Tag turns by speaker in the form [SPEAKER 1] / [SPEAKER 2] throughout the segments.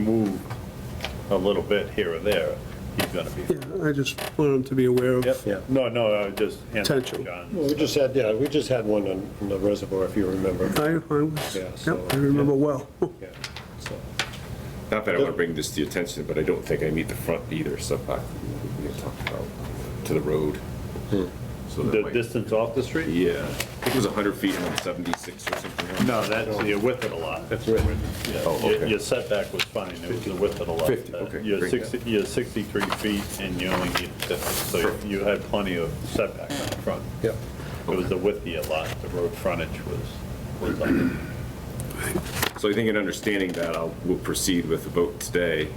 [SPEAKER 1] moved a little bit here or there, he's gonna be.
[SPEAKER 2] Yeah, I just want them to be aware of.
[SPEAKER 3] Yeah.
[SPEAKER 1] Yep, no, no, I just answered
[SPEAKER 2] Potential.
[SPEAKER 1] John.
[SPEAKER 3] Well, we just had, yeah, we just had one on on the reservoir, if you remember.
[SPEAKER 2] I, I was,
[SPEAKER 3] Yeah, so-
[SPEAKER 2] yep, I remember well.
[SPEAKER 3] Yeah, so,
[SPEAKER 4] Not that I want to bring this to your attention, but I don't think I need the front either setback we had talked about to the road. So that
[SPEAKER 1] The
[SPEAKER 4] might,
[SPEAKER 1] distance off the street?
[SPEAKER 4] yeah, I think it was 100 feet and I'm 76 or something.
[SPEAKER 1] No, that's the width of the lot. That's
[SPEAKER 3] right.
[SPEAKER 4] Oh, okay.
[SPEAKER 1] Your setback was fine, it was the width of the lot. Uh,
[SPEAKER 4] 50, okay,
[SPEAKER 1] You're
[SPEAKER 4] great.
[SPEAKER 1] 60, you're 63 feet and you only need 50, so
[SPEAKER 4] Perfect.
[SPEAKER 1] you had plenty of setback on the front.
[SPEAKER 3] yeah.
[SPEAKER 1] It was the width of your lot, the road frontage was, was on it.
[SPEAKER 4] So I think in understanding that, I'll, we'll proceed with the vote today.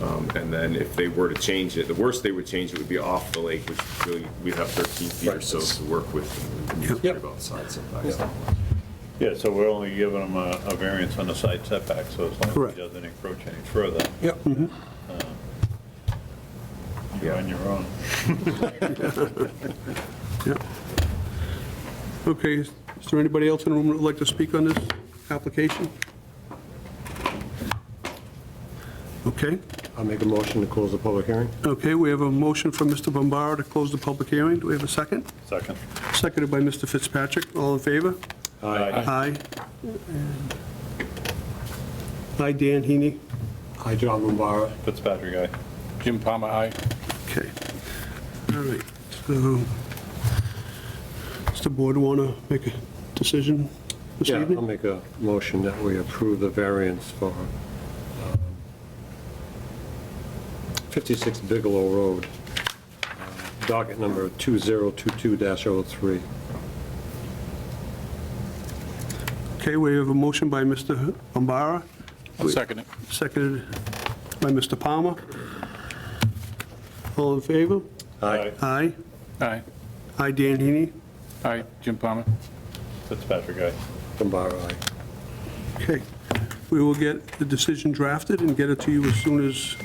[SPEAKER 4] Um, And then if they were to change it, the worst they would change it would be off the lake, which really, we'd have 13 feet or so to work with. and we can
[SPEAKER 3] Yep.
[SPEAKER 4] worry About side setbacks.
[SPEAKER 3] Yeah.
[SPEAKER 1] Yeah, so we're only giving them a, a variance on the side setback, so as long as
[SPEAKER 2] Correct.
[SPEAKER 1] it doesn't encroach any further, Uh,
[SPEAKER 2] Yep. Mm-hmm.
[SPEAKER 1] you're on your own.
[SPEAKER 2] Okay, is is there anybody else in the room that would like to speak on this application? Okay,
[SPEAKER 3] I'll make a motion to close the public hearing.
[SPEAKER 2] okay, we have a motion from Mr. Bombara to close the public hearing. Do we have a second?
[SPEAKER 1] Second.
[SPEAKER 2] Seconded by Mr. Fitzpatrick. All in favor?
[SPEAKER 1] Aye.
[SPEAKER 2] Aye. Aye, Dan Heaney.
[SPEAKER 3] Hi, John Bombara.
[SPEAKER 1] Fitzpatrick, aye.
[SPEAKER 5] Jim Palmer, aye.
[SPEAKER 2] Okay. All right, so, does the board want to make a decision this
[SPEAKER 3] Yeah, um, I'll
[SPEAKER 2] evening?
[SPEAKER 3] make a motion that we approve the variance for um, 56 Bigelow Road, uh, docket number 2022-03.
[SPEAKER 2] Okay, we have a motion by Mr. Bombara,
[SPEAKER 5] I'll second it.
[SPEAKER 2] seconded by Mr. Palmer. All in favor?
[SPEAKER 1] Aye.
[SPEAKER 2] Aye.
[SPEAKER 5] Aye.
[SPEAKER 2] Aye, Dan Heaney.
[SPEAKER 5] Aye, Jim Palmer.
[SPEAKER 1] Fitzpatrick, aye.
[SPEAKER 3] Bombara, aye.
[SPEAKER 2] Okay, we will get the decision drafted and get it to you as soon as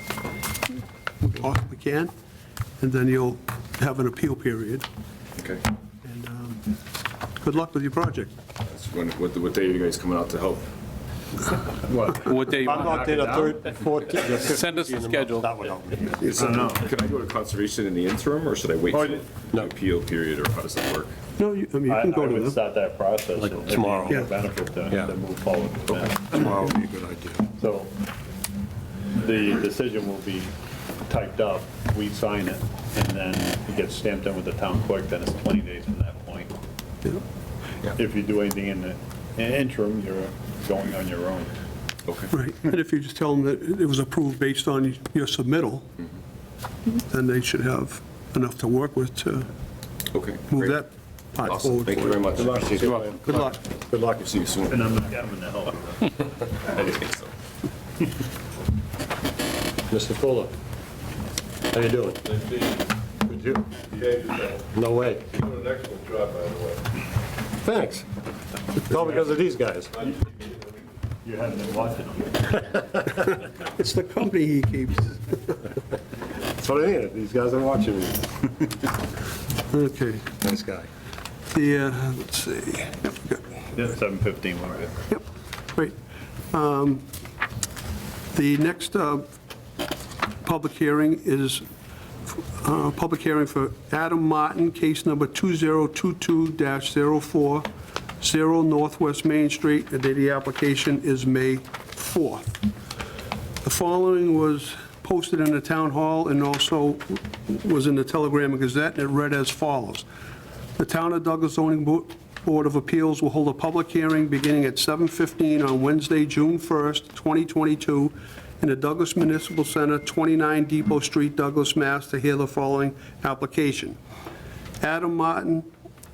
[SPEAKER 2] we possibly can, and then you'll have an appeal period.
[SPEAKER 4] Okay.
[SPEAKER 2] And um, good luck with your project.
[SPEAKER 4] That's when- What, what day are you guys coming out to help?
[SPEAKER 5] What day you
[SPEAKER 3] I'm
[SPEAKER 5] want?
[SPEAKER 3] not there the third, fourth.
[SPEAKER 5] Send us the schedule.
[SPEAKER 3] That would help me.
[SPEAKER 4] Can I go to conservation in the interim, or should I wait
[SPEAKER 1] Oh,
[SPEAKER 4] for
[SPEAKER 1] yeah.
[SPEAKER 4] the appeal period, or how does that work?
[SPEAKER 2] No, you, I mean, you
[SPEAKER 1] I I
[SPEAKER 2] can go
[SPEAKER 1] would
[SPEAKER 2] to them.
[SPEAKER 1] start that process. and it'd be
[SPEAKER 3] tomorrow.
[SPEAKER 1] a Benefit to,
[SPEAKER 3] Yeah.
[SPEAKER 1] to move forward with that.
[SPEAKER 3] Tomorrow would be a good idea.
[SPEAKER 1] So the decision will be typed up, we sign it, and then it gets stamped in with the town clerk, then it's 20 days from that point. If you do anything in the in interim, you're going on your own.
[SPEAKER 4] Okay.
[SPEAKER 2] Right, and if you just tell them that it was approved based on your submittal,
[SPEAKER 4] Mm-hmm.
[SPEAKER 2] then they should have enough to work with to
[SPEAKER 4] Okay.
[SPEAKER 2] move
[SPEAKER 4] great.
[SPEAKER 2] that part
[SPEAKER 4] Awesome,
[SPEAKER 2] forward.
[SPEAKER 4] thank you very much.
[SPEAKER 3] Good luck.
[SPEAKER 2] Good luck.
[SPEAKER 3] Good luck.
[SPEAKER 4] See you soon.
[SPEAKER 1] And I'm not having to help.
[SPEAKER 4] I didn't think so.
[SPEAKER 3] Mr. Fuller, how you doing? Good, you? No way.
[SPEAKER 6] Doing an excellent job, by the way.
[SPEAKER 3] Thanks. It's all because of these guys.
[SPEAKER 1] You haven't been watching them.
[SPEAKER 2] It's the company he keeps.
[SPEAKER 3] That's what I needed. These guys are watching me.
[SPEAKER 2] Okay,
[SPEAKER 3] Nice guy.
[SPEAKER 2] the, uh, let's see, Yep, good.
[SPEAKER 1] Yeah, 7:15, we're good.
[SPEAKER 2] Yep, great. Um, The next uh, public hearing is, uh, public hearing for Adam Martin, case number 2022-040 Northwest Main Street, and the application is May 4th. The following was posted in the town hall and also was in the Telegram and Gazette, and it read as follows. The Town of Douglas Zoning Bo- Board of Appeals will hold a public hearing beginning at 7:15 on Wednesday, June 1st, 2022, in the Douglas Municipal Center, 29 Depot Street, Douglas, Mass., to hear the following application. Adam Martin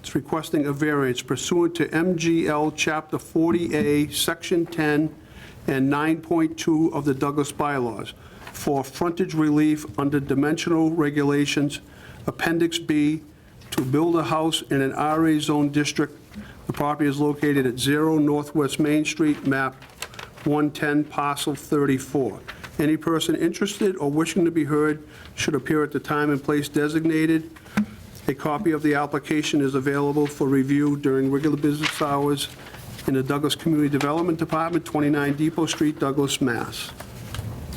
[SPEAKER 2] is requesting a variance pursuant to MGL Chapter 40A, Section 10, and 9.2 of the Douglas bylaws for frontage relief under dimensional regulations, Appendix B, to build a house in an RA zone district. The property is located at 0 Northwest Main Street, map 110 parcel 34. Any person interested or wishing to be heard should appear at the time and place designated. A copy of the application is available for review during regular business hours in the Douglas Community Development Department, 29 Depot Street, Douglas, Mass.